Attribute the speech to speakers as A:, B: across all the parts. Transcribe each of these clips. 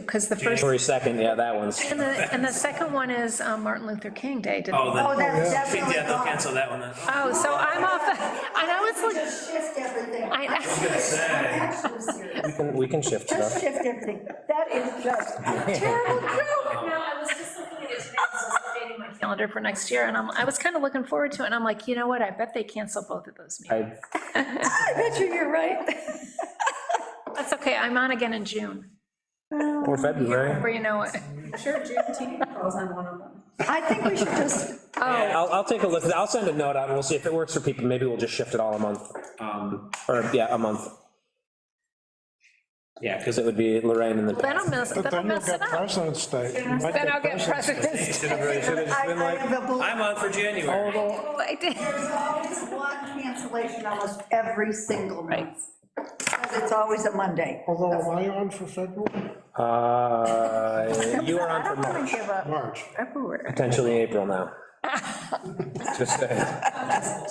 A: Because the first,
B: January 2nd, yeah, that one's,
A: and the, and the second one is um, Martin Luther King Day. didn't-
C: Oh,
D: Oh,
C: then,
D: that's, that's. what I
C: yeah, they'll
D: thought.
C: cancel that one then.
A: Oh, so I'm off, and I was like,
D: Just shift everything.
A: I-
D: I'm serious. I'm actually serious.
B: we can- we can shift
D: Just
B: stuff.
D: shift everything. That is just a terrible joke.
A: No, I was just looking at his, I was updating my calendar for next year, and I'm, I was kind of looking forward to it, and I'm like, you know what, I bet they cancel both of those meetings.
B: I,
D: I bet you you're right.
A: That's okay, I'm on again in June,
B: or February.
A: where you know it.
E: Sure, Juneteenth falls on one of them.
D: I think we should just,
A: Oh,
B: I'll, I'll take a look, I'll send a note out, and we'll see if it works for people, maybe we'll just shift it all a month, um, or, yeah, a month. Yeah, because it would be Lorraine and then.
A: then I'll mess,
F: But
A: then I'll
F: then you'll
A: mess
F: get
A: it up.
F: President's Day.
A: Then I'll get presidents.
D: I I have a belief,
C: I'm on for January.
A: Oh, I did.
D: there's always one cancellation almost every single month. Because it's always a Monday.
F: Although, am I on for February?
B: Uh, You are on for March,
D: Give up
F: March.
D: everywhere.
B: potentially April now. Just saying.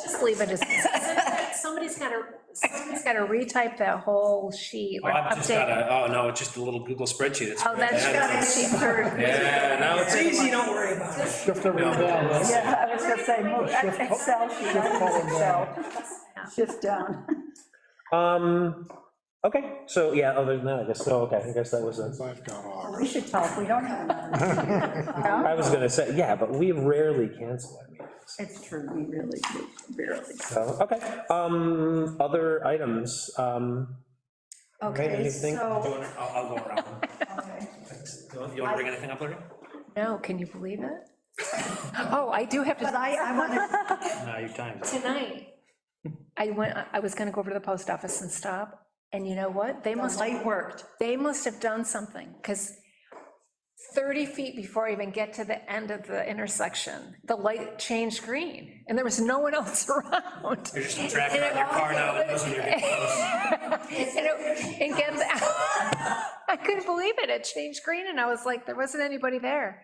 A: Just leave it as, somebody's got to, somebody's got to retype that whole sheet,
C: Oh,
A: like
C: I've just got
A: update.
C: a, oh, no, it's just a little Google spreadsheet. It's
A: Oh,
C: great.
A: that's,
C: Yeah, now it's easy, don't worry about it.
F: Shift everything down. right?
D: Yeah, I was gonna say, move- Excel, sheet, I use Excel, shift down.
B: Um, okay, so, yeah, other than that, I guess, so, okay, I guess that was, a-
F: I've got off.
D: We should talk, we don't have another. No?
B: I was gonna say, yeah, but we rarely cancel, I mean,
D: It's true, we really do, barely.
B: so, Uh, okay. Um, other items, um, Right,
D: Okay,
B: anything?
D: so,
C: I'll, I'll go around.
D: okay.
C: You want to bring anything up, Larry?
A: no, can you believe it? Oh, I do have to.
D: but I, I want to,
C: No, your time's up.
A: Tonight, I went, I was gonna go over to the post office and stop, and you know what? They must,
D: light worked.
A: they must have done something, because 30 feet before I even get to the end of the intersection, the light changed green, and there was no one else around.
C: You're just tracking on your car now, it knows when you're getting close.
A: And it- and get, I couldn't believe it, it changed green, and I was like, there wasn't anybody there.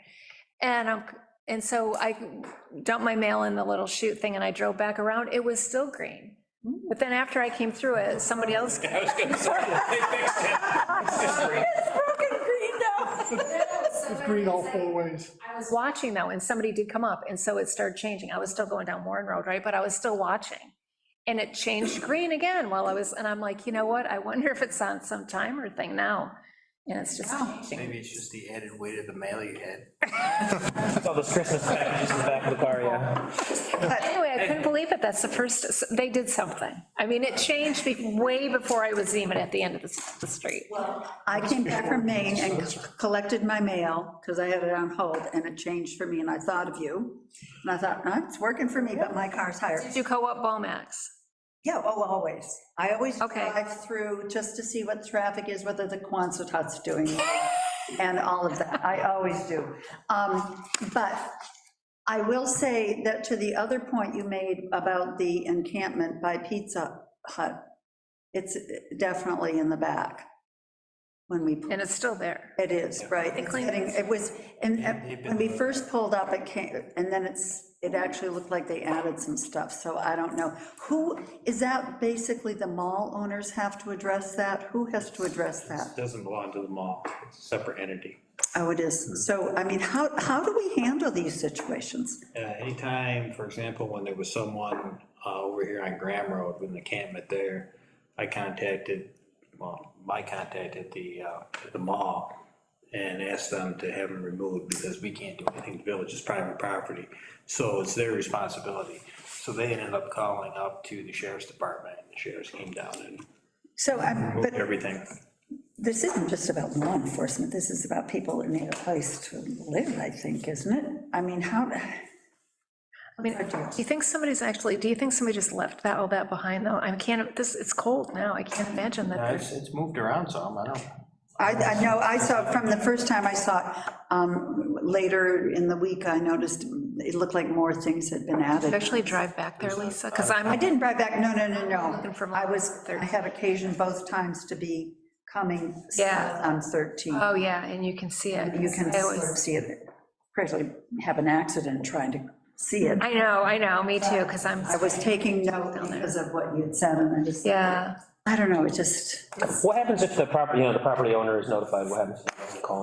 A: And I'm, and so I dumped my mail in the little chute thing, and I drove back around, it was still green. But then after I came through it, somebody else,
C: I was gonna say, they fixed it. It's just great.
F: It's green all four ways.
A: I was watching though, and somebody did come up, and so it started changing, I was still going down Warren Road, right, but I was still watching. And it changed green again while I was, and I'm like, you know what, I wonder if it's on some timer thing now, and it's just changing.
G: Maybe it's just the added weight of the mail you had.
B: it's all those Christmas packages in the back of the car, yeah.
A: Anyway, I couldn't believe it, that's the first, they did something. I mean, it changed be- way before I was even at the end of the s- the street.
D: I came back from Maine and c- collected my mail, because I had it on hold, and it changed for me, and I thought of you. And I thought, "Huh, it's working for me, but my car's higher.
A: Did you co-op Bomax?
D: Yeah, oh, always. I always
A: Okay.
D: drive through just to see what traffic is, whether the Quonset hut's doing, and all of that. I always do. Um, But I will say that to the other point you made about the encampment by Pizza Hut, it's definitely in the back when we. pull-
A: And it's still there.
D: It is, right. It's
A: cleaned
D: getting- It was, and and when we first pulled up, it came, and then it's, it actually looked like they added some stuff, so I don't know. Who, is that basically the mall owners have to address that? Who has to address that?
H: doesn't belong to the mall, it's a separate entity.
D: Oh, it is. So, I mean, how, how do we handle these situations?
H: Uh, Anytime, for example, when there was someone uh, over here on Graham Road with an encampment there, I contacted, well, I contacted the, uh, the mall and asked them to have them removed because we can't do anything, the village is private property. So it's their responsibility. So they ended up calling up to the sheriff's department, and the sheriffs came down and
D: So, I'm, but
H: moved everything.
D: this isn't just about law enforcement, this is about people that need a place to live, I think, isn't it? I mean, how,
A: I mean, do you think somebody's actually, do you think somebody just left that, all that behind though? I can't, this, it's cold now, I can't imagine that.
G: It's, it's moved around some, I don't.
D: I, I know, I saw, from the first time I saw it, um, later in the week, I noticed it looked like more things had been
A: Did you
D: added.
A: Actually drive back there, Lisa, because
D: I
A: I'm,
D: didn't drive back, no, no, no,
A: Looking for
D: no.
A: more.
D: I was, I had occasion both times to be coming
A: Yeah.
D: south on 13.
A: oh yeah, and you can see it.
D: You can
A: I
D: sort of
A: always-
D: see it, practically have an accident trying to see it.
A: I know, I know, me too, because I'm,
D: I was taking note because of what you had said, and I just,
A: yeah.
D: I don't know, it just,
B: What happens if the property, you know, the property owner is notified, what happens? I can call